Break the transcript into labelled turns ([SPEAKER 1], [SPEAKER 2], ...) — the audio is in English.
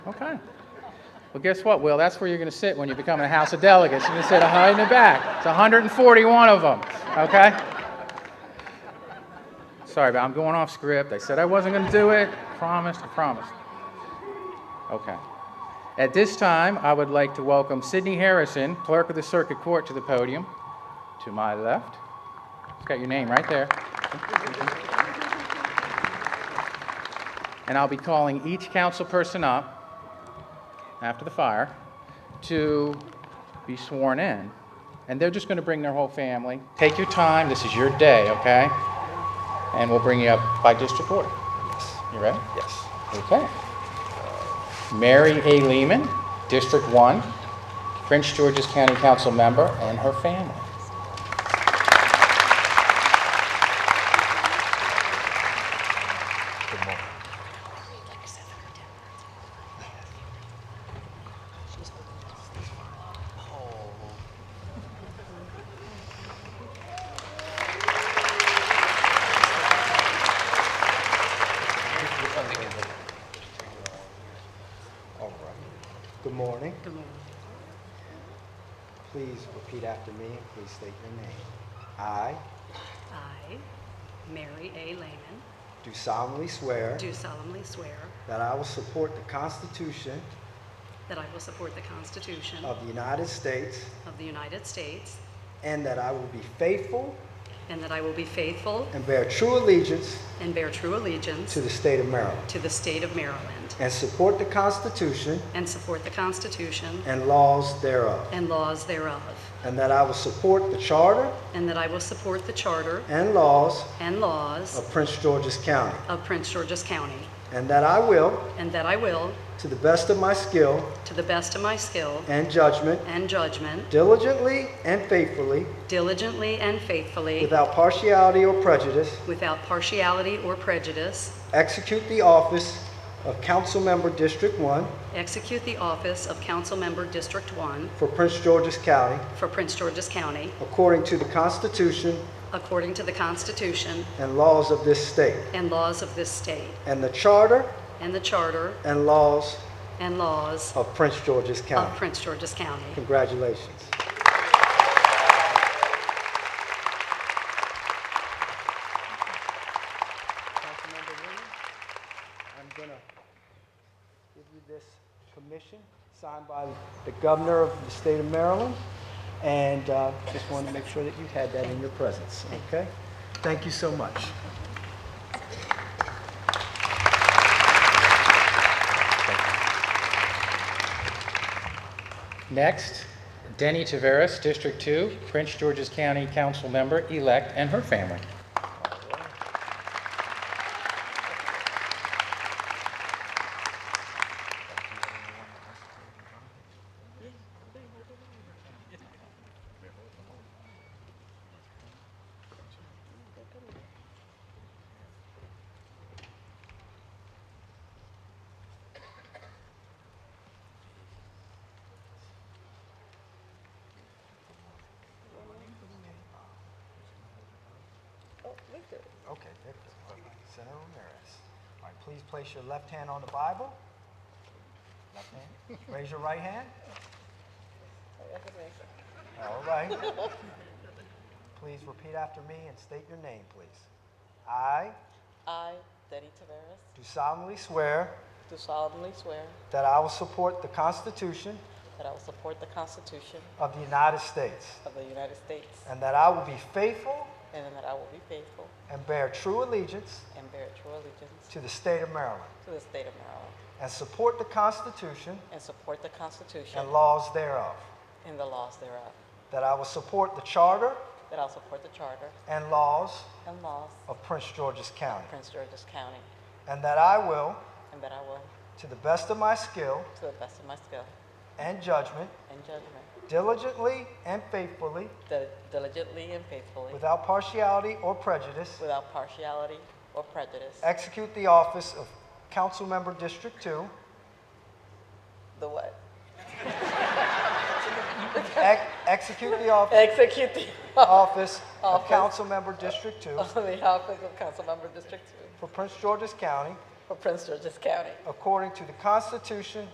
[SPEAKER 1] Okay. Well, guess what, Will? That's where you're going to sit when you become a House of Delegates. You're going to sit right in the back. It's 141 of them. Okay? Sorry, but I'm going off script. I said I wasn't going to do it. Promised, I promised. Okay. At this time, I would like to welcome Sidney Harrison, Clerk of the Circuit Court, to the podium. To my left. It's got your name right there. And I'll be calling each council person up after the fire to be sworn in. And they're just going to bring their whole family. Take your time. This is your day, okay? And we'll bring you up by district order. You ready?
[SPEAKER 2] Yes.
[SPEAKER 1] Okay. Mary A. Lehman, District 1, Prince George's County Council member, and her family.
[SPEAKER 2] All right. Good morning. Good morning. Please repeat after me and please state your name. I
[SPEAKER 3] I, Mary A. Lehman,
[SPEAKER 2] do solemnly swear
[SPEAKER 3] do solemnly swear
[SPEAKER 2] that I will support the Constitution
[SPEAKER 3] that I will support the Constitution
[SPEAKER 2] of the United States
[SPEAKER 3] of the United States
[SPEAKER 2] and that I will be faithful
[SPEAKER 3] and that I will be faithful
[SPEAKER 2] and bear true allegiance
[SPEAKER 3] and bear true allegiance
[SPEAKER 2] to the state of Maryland
[SPEAKER 3] to the state of Maryland
[SPEAKER 2] and support the Constitution
[SPEAKER 3] and support the Constitution
[SPEAKER 2] and laws thereof
[SPEAKER 3] and laws thereof,
[SPEAKER 2] and that I will support the charter
[SPEAKER 3] and that I will support the charter
[SPEAKER 2] and laws
[SPEAKER 3] and laws
[SPEAKER 2] of Prince George's County
[SPEAKER 3] of Prince George's County,
[SPEAKER 2] and that I will,
[SPEAKER 3] and that I will,
[SPEAKER 2] to the best of my skill
[SPEAKER 3] to the best of my skill
[SPEAKER 2] and judgment,
[SPEAKER 3] and judgment,
[SPEAKER 2] Diligently and faithfully,
[SPEAKER 3] diligently and faithfully,
[SPEAKER 2] without partiality or prejudice,
[SPEAKER 3] without partiality or prejudice,
[SPEAKER 2] execute the office of Councilmember District 1
[SPEAKER 3] Execute the office of Council Member District 1
[SPEAKER 2] for Prince George's County
[SPEAKER 3] for Prince George's County
[SPEAKER 2] according to the Constitution
[SPEAKER 3] according to the Constitution
[SPEAKER 2] and laws of this state,
[SPEAKER 3] and laws of this state
[SPEAKER 2] and the Charter
[SPEAKER 3] and the Charter
[SPEAKER 2] and laws
[SPEAKER 3] and laws
[SPEAKER 2] of Prince George's
[SPEAKER 3] of
[SPEAKER 2] County.
[SPEAKER 3] Prince George's County.
[SPEAKER 2] Congratulations. Councilmember Williams, I'm gonna give you this commission signed by the governor of the state of Maryland, and uh, just wanted to make sure that you had that in your presence, okay? Thank you so much.
[SPEAKER 1] Next, Denny Taveras, District 2, Prince George's County Council member-elect, and her family.
[SPEAKER 2] Okay, Victor. Senator Ramirez. All right, please place your left hand on the Bible. Left hand. Raise your right hand. All right. Please repeat after me and state your name, please. I
[SPEAKER 4] I, Denny Taveras,
[SPEAKER 2] do solemnly swear
[SPEAKER 4] do solemnly swear
[SPEAKER 2] that I will support the Constitution
[SPEAKER 4] that I will support the Constitution
[SPEAKER 2] of the United States
[SPEAKER 4] of the United States
[SPEAKER 2] and that I will be faithful
[SPEAKER 4] and that I will be faithful
[SPEAKER 2] and bear true allegiance
[SPEAKER 4] and bear true allegiance
[SPEAKER 2] to the state of Maryland
[SPEAKER 4] to the state of Maryland
[SPEAKER 2] and support the Constitution
[SPEAKER 4] and support the Constitution
[SPEAKER 2] and laws thereof.
[SPEAKER 4] and the laws thereof,
[SPEAKER 2] That I will support the charter
[SPEAKER 4] that I will support the Charter
[SPEAKER 2] and laws
[SPEAKER 4] and laws
[SPEAKER 2] of Prince George's County.
[SPEAKER 4] of Prince George's County,
[SPEAKER 2] And that I will,
[SPEAKER 4] and that I will,
[SPEAKER 2] to the best of my skill
[SPEAKER 4] to the best of my skill
[SPEAKER 2] and judgment,
[SPEAKER 4] and judgment,
[SPEAKER 2] diligently and faithfully,
[SPEAKER 4] dil- diligently and faithfully,
[SPEAKER 2] without partiality or prejudice,
[SPEAKER 4] without partiality or prejudice,
[SPEAKER 2] execute the office of Councilmember District 2,
[SPEAKER 4] the what?
[SPEAKER 2] ex- execute the office,
[SPEAKER 4] Execute the
[SPEAKER 2] office of
[SPEAKER 4] Office.
[SPEAKER 2] Councilmember District 2
[SPEAKER 4] of the office of Councilmember District Two
[SPEAKER 2] for Prince George's County
[SPEAKER 4] for Prince George's County.
[SPEAKER 2] according to the Constitution